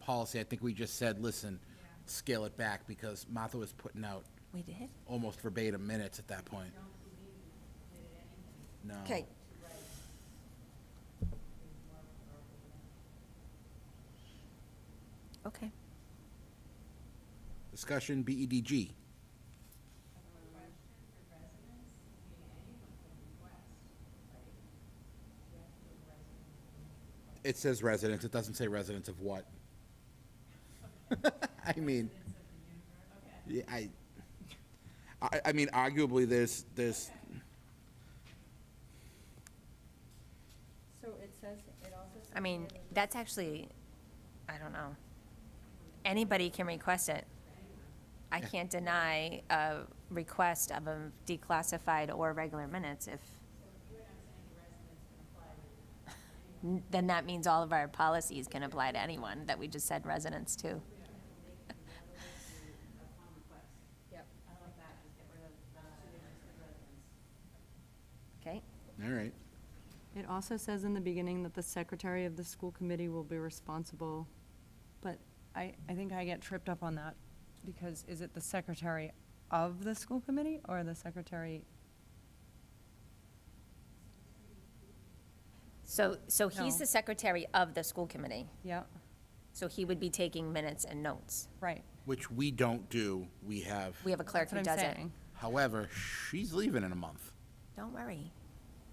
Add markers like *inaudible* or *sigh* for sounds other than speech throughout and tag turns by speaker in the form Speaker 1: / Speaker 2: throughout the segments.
Speaker 1: policy, I think we just said, listen, scale it back because Martha was putting out
Speaker 2: We did?
Speaker 1: almost verbatim minutes at that point. No.
Speaker 2: Okay. Okay.
Speaker 1: Discussion E BEDG. It says residents, it doesn't say residents of what. *laughs* I mean. Yeah, I, I, I mean, arguably, there's, there's,
Speaker 3: So it says, it also says.
Speaker 2: I mean,
Speaker 3: that it-
Speaker 2: that's actually, I don't know. Anybody can request it. I can't deny a request of a declassified or regular minutes if. N- Then that means all of our policies can apply to anyone that we just said residents to.
Speaker 3: Yep.
Speaker 2: Okay?
Speaker 1: all right.
Speaker 4: It also says in the beginning that the secretary of the school committee will be responsible, but I, I think I get tripped up on that, because is it the secretary of the school committee or the secretary?
Speaker 2: So, so he's
Speaker 4: No.
Speaker 2: the secretary of the school committee,
Speaker 4: Yeah,
Speaker 2: so he would be taking minutes and notes.
Speaker 4: right.
Speaker 1: Which we don't do, we have.
Speaker 2: We have a clerk
Speaker 4: That's what
Speaker 2: who
Speaker 4: I'm
Speaker 2: does it. *laughs*
Speaker 4: saying.
Speaker 1: However, she's leaving in a month.
Speaker 2: Don't worry.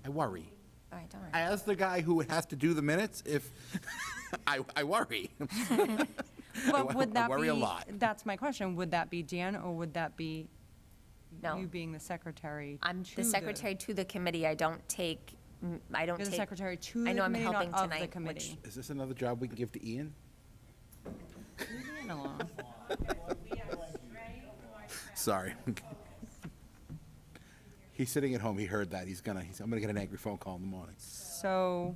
Speaker 1: I worry.
Speaker 2: All right, don't worry.
Speaker 1: As the guy who has to do the minutes, if, *laughs* I, I
Speaker 4: *laughs*
Speaker 1: worry.
Speaker 4: But
Speaker 1: wo-
Speaker 4: would
Speaker 1: I
Speaker 4: that be?
Speaker 1: worry a lot.
Speaker 4: That's my question. Would that be Dan or would that be
Speaker 2: No.
Speaker 4: you being the secretary?
Speaker 2: I'm
Speaker 4: to
Speaker 2: the secretary to the committee. I don't take, mm, I don't
Speaker 4: You're
Speaker 2: take.
Speaker 4: the secretary to the
Speaker 2: I know I'm
Speaker 4: committee, not
Speaker 2: helping
Speaker 4: of the
Speaker 2: tonight, which-
Speaker 4: committee.
Speaker 1: Is this another job we can give to Ian?
Speaker 4: Leave Ian alone.
Speaker 1: Sorry. *laughs* He's sitting at home, he heard that, he's gonna, he's, I'm gonna get an angry phone call in the morning.
Speaker 4: *laughs* So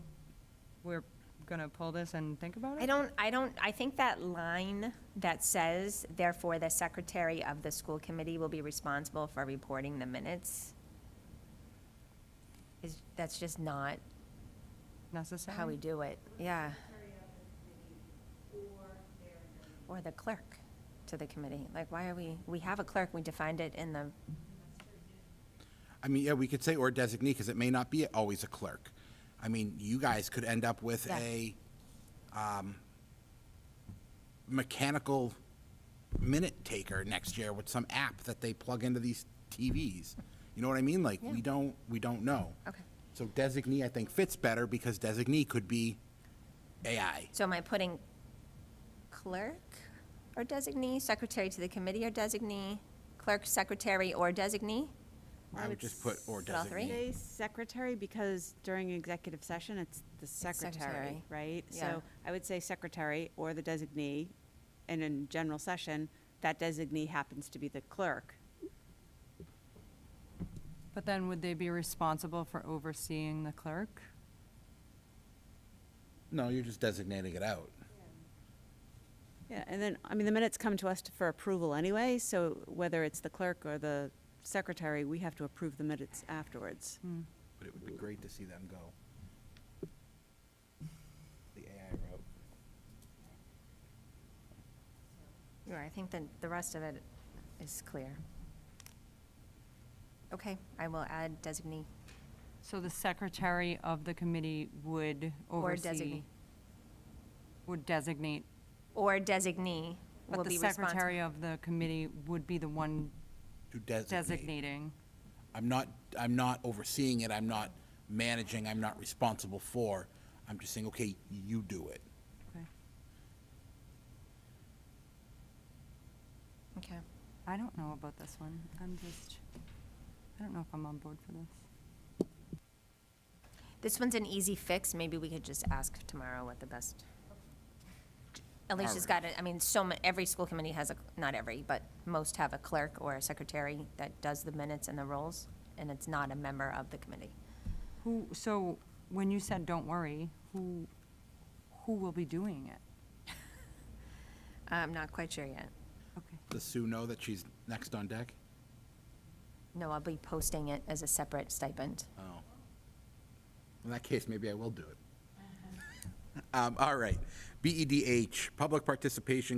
Speaker 4: we're gonna pull this and think about it?
Speaker 2: I don't, I don't, I think that line that says, therefore, the secretary of the school committee will be responsible for reporting the minutes is, that's just not
Speaker 4: Necessary?
Speaker 2: how we do it. Yeah. Or the clerk to the committee. Like, why are we, we have a clerk, we defined it in the
Speaker 1: I mean, yeah, we could say or designee, because it may not be always a clerk. I mean, you guys could end up with
Speaker 2: Yeah.
Speaker 1: a, um, mechanical minute taker next year with some app that they plug into these TVs. You know what I mean? Like, we
Speaker 2: Yeah.
Speaker 1: don't, we don't know.
Speaker 2: Okay.
Speaker 1: So designee, I think, fits better, because designee could be AI.
Speaker 2: So am I putting clerk or designee, secretary to the committee or designee, clerk, secretary, or designee?
Speaker 1: I would just put or
Speaker 2: All three?
Speaker 1: designee.
Speaker 5: Say secretary because during executive session, it's the
Speaker 2: secretary.
Speaker 5: secretary, right?
Speaker 2: Yeah.
Speaker 5: So I would say secretary or the designee, and in general session, that designee happens to be the clerk.
Speaker 4: But then would they be responsible for overseeing the clerk?
Speaker 1: No, you're just designating it out.
Speaker 5: Yeah, and then, I mean, the minutes come to us for approval anyway, so whether it's the clerk or the secretary, we have to approve the minutes afterwards.
Speaker 1: But it would be great to see them go. The AI route.
Speaker 2: Yeah, I think that the rest of it is clear. Okay, I will add designee
Speaker 4: So the secretary of the committee would
Speaker 2: or
Speaker 4: oversee,
Speaker 2: designee.
Speaker 4: would designate,
Speaker 2: Or designee will
Speaker 4: but the
Speaker 2: be responsible.
Speaker 4: secretary of the committee would be the one
Speaker 1: To designate.
Speaker 4: designating.
Speaker 1: I'm not, I'm not overseeing it, I'm not managing, I'm not responsible for. I'm just saying, okay, you do it.
Speaker 4: Okay.
Speaker 2: Okay,
Speaker 4: I don't know about this one. I'm just, I don't know if I'm on board for this.
Speaker 2: This one's an easy fix, maybe we could just ask tomorrow what the best. Alicia's got it, I mean, so ma, every school committee has a, not every, but most have a clerk or a secretary that does the minutes and the rolls, and it's not a member of the committee.
Speaker 4: Who, so when you said, don't worry, who, who will be doing it?
Speaker 2: I'm not quite sure yet.
Speaker 4: Okay.
Speaker 1: Does Sue know that she's next on deck?
Speaker 2: No, I'll be posting it as a separate stipend.
Speaker 1: Oh. In that case, maybe I will do it. *laughs* Um, all right. BEDH, E public participation